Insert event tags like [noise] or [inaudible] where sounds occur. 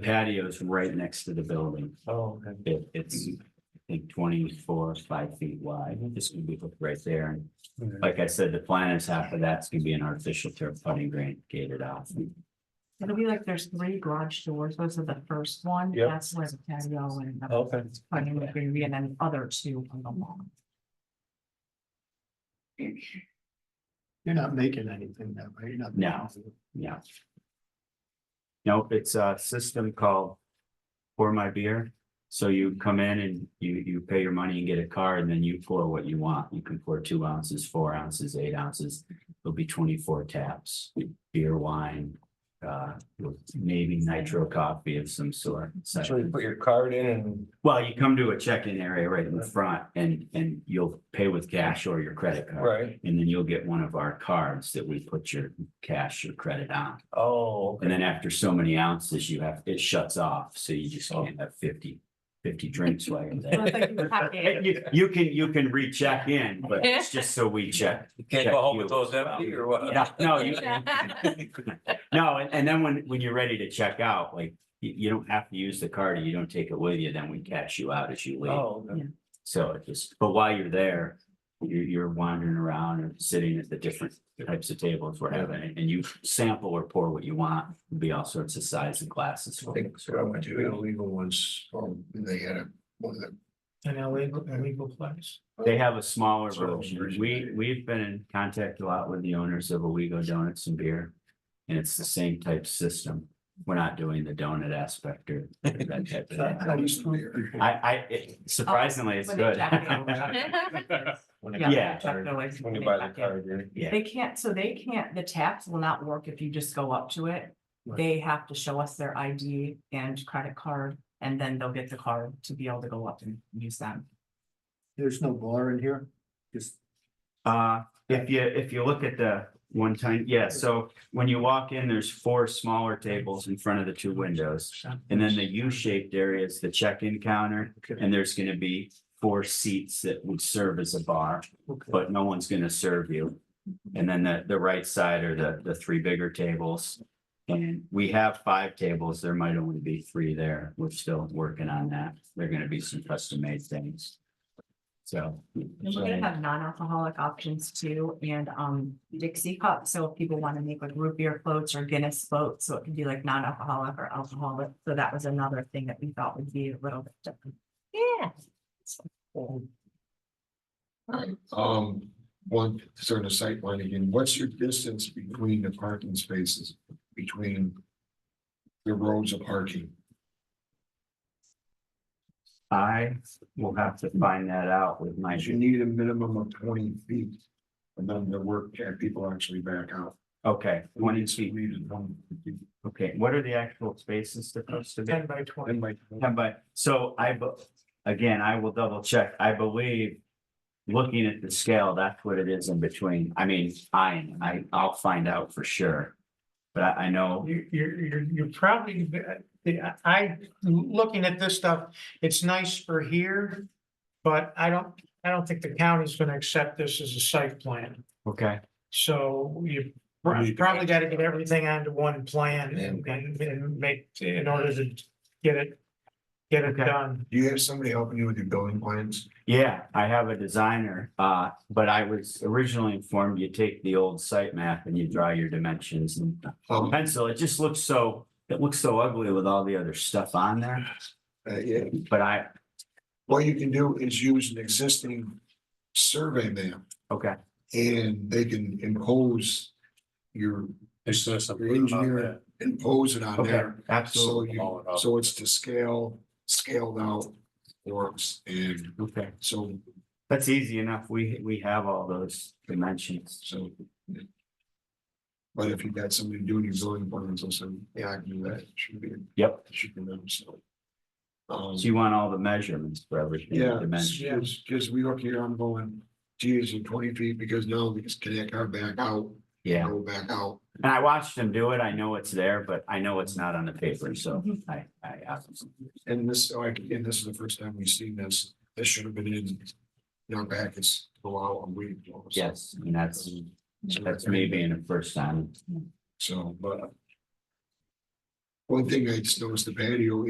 The Patio's right next to the building. Oh, okay. It, it's, I think twenty-four, five feet wide. It's gonna be hooked right there. And like I said, the plan is half of that's gonna be an artificial turf putting green gated off. It'll be like there's three garage doors, those are the first one, Yep. Oh. that's where the patio and. the Okay. Funding would be, and then other two on the lawn. [laughs] You're not making anything that way, you're not. No. Yeah. Nope, it's a system called Pour My Beer. So you come in and you, you pay your money and get a card and then you pour what you want. You can pour two ounces, four ounces, eight ounces. There'll be twenty-four taps, beer, wine, uh, maybe nitro coffee of some sort. So- So you put your card in and, Well, you come to a check-in area right in the front and, and you'll pay with cash or your credit card. right, And then you'll get one of our cards that we put your cash or credit on. oh, okay. And then after so many ounces, you have, it shuts off, so you just Oh. can't have 50 50 drinks while you're [laughs] So it's there. like you And pack it. You, you can, you can recheck in, but it's just so we [laughs] check. You can't go home with those empty or what? Yeah, no, you. No, and, and then when, when you're ready to check out, like, you, you don't have to use the card, or you don't take it with you, then we cash you out as you leave. Oh, okay. So it just, but while you're there, you're, you're wandering around and sitting at the different types of tables we're having, and you sample or pour what you want. There'll Be all sorts of sizes and glasses. I for you. think so. I went to illegal once, or they had a, one of the. An illegal, illegal place. They have a smaller Smaller version. version. We, we've been in contact a lot with the owners of Owego Donuts and Beer. And it's the same type system. We're not doing the donut aspect or that type of [laughs] I thing. used to- I, I, it- surprisingly, it's When they good. jack it [laughs] over. Yeah, Yeah. check it away, When you they buy pack the it. card, you're- Yeah. They can't, so they can't, the taps will not work if you just go up to it. They have to show us their ID and credit card, and then they'll get the card to be able to go up and use them. There's no bar in here, just. Uh, if you, if you look at the one time, yeah, so when you walk in, there's four smaller tables in front of the two windows. And then the U-shaped area is the check-in counter, Okay, and there's gonna be four seats that would serve as a bar. okay. but no one's gonna serve you. And then the, the right side are the, the three bigger tables. And we have five tables, there might only be three there, we're still working on that, there are gonna be some custom made things. So. And we're gonna have non-alcoholic options too, and um Dixie cups, so if people wanna make like root beer floats or Guinness floats, so it can be like non-alcoholic or alcoholic, so that was another thing that we thought would be a little bit different. Yeah. Um, one, sort of sight line again, what's your distance between the parking spaces, between the rows of parking? I will have to find that out with my, Because you need a minimum of twenty feet, and then the work, and people actually back out. okay, twenty feet, We need to- okay, what are the actual spaces supposed to be? Ten by twenty. Then my- Yeah, but, so I, bu- again, I will double check, I believe. Looking at the scale, that's what it is in between, I mean, I, I, I'll find out for sure. But I, I know, You, you're, you're, you're probably, I, I- looking at this stuff, it's nice for here, but I don't, I don't think the county's gonna accept this as a site plan. okay, So you prob- probably gotta get everything onto one plan and, and- and make, in order to get it, get it Okay. done. Do you have somebody helping you with your building plans? yeah, I have a designer, uh, but I was originally informed you take the old site map and you draw your dimensions and Um, pencil, it just looks so, it looks so ugly with all the other stuff on there, uh, yeah, but I, what you can do is use an existing survey map okay, And they can impose your, It's just your engineer, impose it on okay, there. So absolutely, you, so it's to scale, scaled out works and okay. so, That's easy enough. We, we have all those dimensions. so. But if you got somebody doing your zoning plans, also, yeah, I can do that, should be, Yep. should be them, so. Um, So you want all the measurements for everything, the yeah, dimension. because, because we look here, I'm going, geez, in twenty feet, because now we just connect our back out, Yeah. go back out. And I watched them do it. I know it's there, but I know it's not on the paper. So Mhm. I, I, asked them. And this, like, and this is the first time we've seen this, this should have been in, in our packets a while, a week. ago, so- yes, and that's, So- that's me being the first time. So, but. One thing I just noticed the patio